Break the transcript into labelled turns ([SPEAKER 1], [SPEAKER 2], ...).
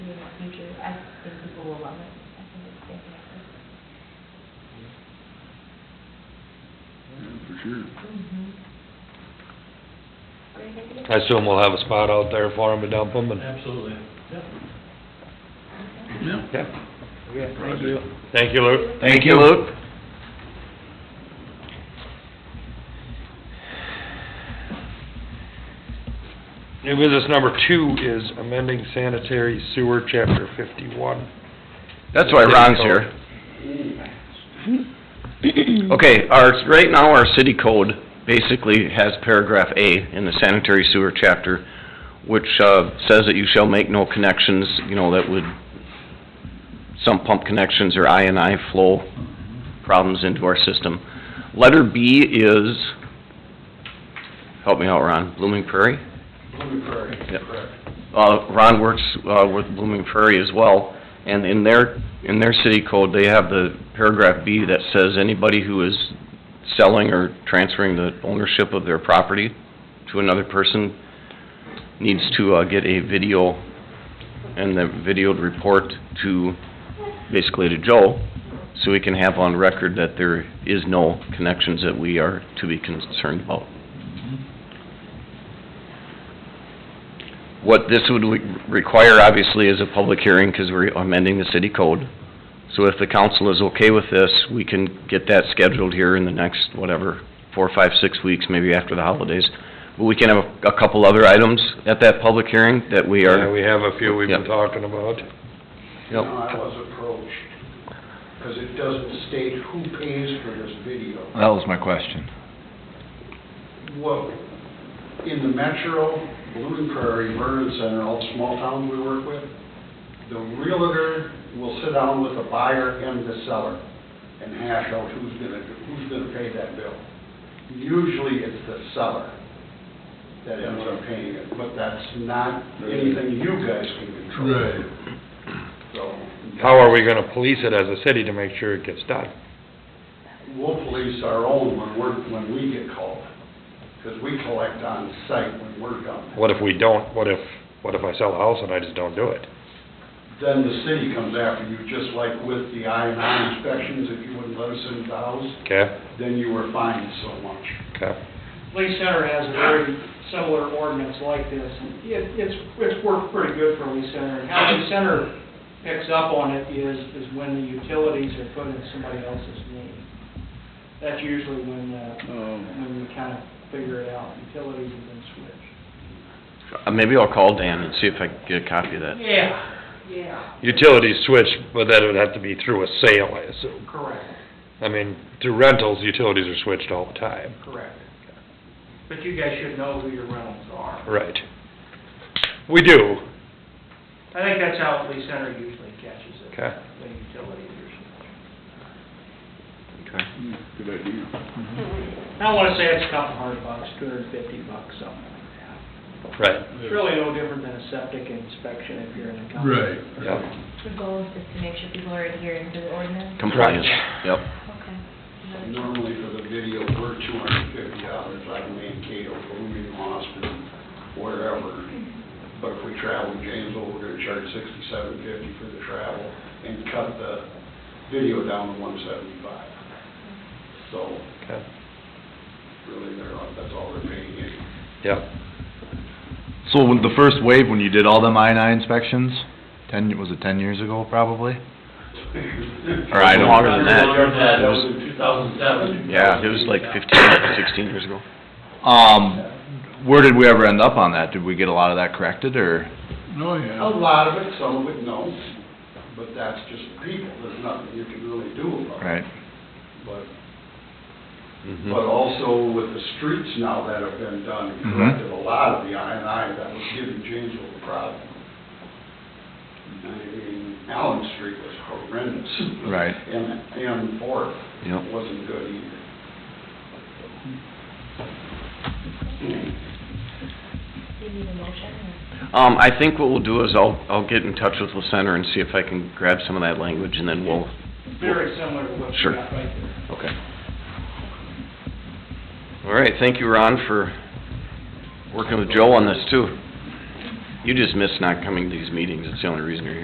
[SPEAKER 1] people will love it. I think it's fantastic.
[SPEAKER 2] Yeah, for sure.
[SPEAKER 1] What do you think?
[SPEAKER 3] I assume we'll have a spot out there for them to dump them and,
[SPEAKER 4] Absolutely, yep.
[SPEAKER 2] Yeah.
[SPEAKER 3] yeah.
[SPEAKER 4] Okay,
[SPEAKER 2] thank you.
[SPEAKER 3] Thank you, Luke.
[SPEAKER 2] Thank you, Luke.
[SPEAKER 3] New business number two is amending sanitary sewer chapter fifty-one.
[SPEAKER 5] That's why Ron's here. Okay, our, right now, our city code basically has paragraph A in the sanitary sewer chapter, which, uh, says that you shall make no connections, you know, that would, some pump connections or I and I flow problems into our system. Letter B is, help me out, Ron, Blooming Prairie?
[SPEAKER 4] Blooming Prairie,
[SPEAKER 5] Yep.
[SPEAKER 4] correct.
[SPEAKER 5] Uh, Ron works, uh, with Blooming Prairie as well, and in their, in their city code, they have the paragraph B that says anybody who is selling or transferring the ownership of their property to another person needs to, uh, get a video, and the videoed report to, basically to Joe, so we can have on record that there is no connections that we are to be concerned about. What this would re- require, obviously, is a public hearing, because we're amending the city code. So if the council is okay with this, we can get that scheduled here in the next, whatever, four, five, six weeks, maybe after the holidays. But we can have a- a couple other items at that public hearing that we
[SPEAKER 3] Yeah,
[SPEAKER 5] are,
[SPEAKER 3] we have a few we've been
[SPEAKER 5] Yep.
[SPEAKER 3] talking about.
[SPEAKER 5] Yep.
[SPEAKER 6] No, I was approached, because it doesn't state who pays for this video.
[SPEAKER 2] That was my question.
[SPEAKER 6] Well, in the metro, Blue Prairie, Vernon Center, all the small towns we work with, the realtor will sit down with the buyer and the seller and hash out who's gonna, who's gonna pay that bill. Usually it's the seller that ends up paying it, but that's not anything you guys can control.
[SPEAKER 2] Right.
[SPEAKER 6] So.
[SPEAKER 3] How are we gonna police it as a city to make sure it gets done?
[SPEAKER 6] We'll police our own when we're, when we get called, because we collect on site when we're done.
[SPEAKER 3] What if we don't, what if, what if I sell a house and I just don't do it?
[SPEAKER 6] Then the city comes after you, just like with the I and I inspections, if you wouldn't let us into the house,
[SPEAKER 3] Okay,
[SPEAKER 6] then you were fined so much.
[SPEAKER 3] okay.
[SPEAKER 7] Police Center has a very similar ordinance like this, and it, it's, it's worked pretty good for Lee Center. And How Lee Center picks up on it is, is when the utilities are put in somebody else's name. That's usually when, uh,
[SPEAKER 2] Mm-hmm.
[SPEAKER 7] when we kind of figure it out, utilities have been switched.
[SPEAKER 5] Uh, maybe I'll call Dan and see if I can get a copy of that.
[SPEAKER 7] Yeah, yeah,
[SPEAKER 3] Utilities switch, but that would have to be through a sale, I assume.
[SPEAKER 7] correct,
[SPEAKER 3] I mean, through rentals, utilities are switched all the time.
[SPEAKER 7] correct. But you guys should know who your rentals are.
[SPEAKER 3] Right. We do.
[SPEAKER 7] I think that's how Lee Center usually catches it,
[SPEAKER 3] Okay.
[SPEAKER 7] the utilities or something.
[SPEAKER 5] Okay.
[SPEAKER 2] Hmm, Good idea.
[SPEAKER 7] I don't wanna say it's a couple hundred bucks, two hundred and fifty bucks, something like that.
[SPEAKER 3] Right.
[SPEAKER 7] It's really no different than a septic inspection if you're in a company.
[SPEAKER 2] Right.
[SPEAKER 3] Yeah.
[SPEAKER 1] The goal is just to make sure people are adhering to the ordinance?
[SPEAKER 5] Compliance, yep.
[SPEAKER 1] Okay.
[SPEAKER 6] Normally for the video, we're two hundred and fifty dollars, like Mankato, Blooming, Austin, wherever. But if we travel to Janesville, we're gonna charge sixty-seven fifty for the travel and cut the video down to one seventy-five. So
[SPEAKER 3] Okay.
[SPEAKER 6] really, they're, that's all they're paying in.
[SPEAKER 3] Yeah.
[SPEAKER 2] So when the first wave, when you did all them I and I inspections, ten, was it ten years ago probably?
[SPEAKER 5] Or I don't- Longer than that.
[SPEAKER 6] Longer than that, that was in two thousand seven.
[SPEAKER 5] Yeah, it was like fifteen, sixteen years ago.
[SPEAKER 2] Um, where did we ever end up on that? Did we get a lot of that corrected or?
[SPEAKER 4] Oh,
[SPEAKER 6] A lot of it, some of it, no, but that's just people, there's nothing you can really do about it.
[SPEAKER 2] Right.
[SPEAKER 6] But,
[SPEAKER 5] Mm-hmm.
[SPEAKER 3] Mhm.
[SPEAKER 6] but also with the streets now that have been done,
[SPEAKER 2] Mhm.
[SPEAKER 6] corrected a lot of the I and I that was giving Janesville the problem. I mean, Allen Street was horrendous.
[SPEAKER 2] Right.
[SPEAKER 6] And, and Fourth
[SPEAKER 2] Yep.
[SPEAKER 6] wasn't good either.
[SPEAKER 1] Do you need a motion? or-
[SPEAKER 5] Um, I think what we'll do is I'll, I'll get in touch with the center and see if I can grab some of that language and then we'll,
[SPEAKER 7] Very similar to what you
[SPEAKER 5] Sure.
[SPEAKER 7] got right there.
[SPEAKER 5] okay. All right, thank you, Ron, for working with Joe on this too. You just missed not coming to these meetings, it's the only reason you're here.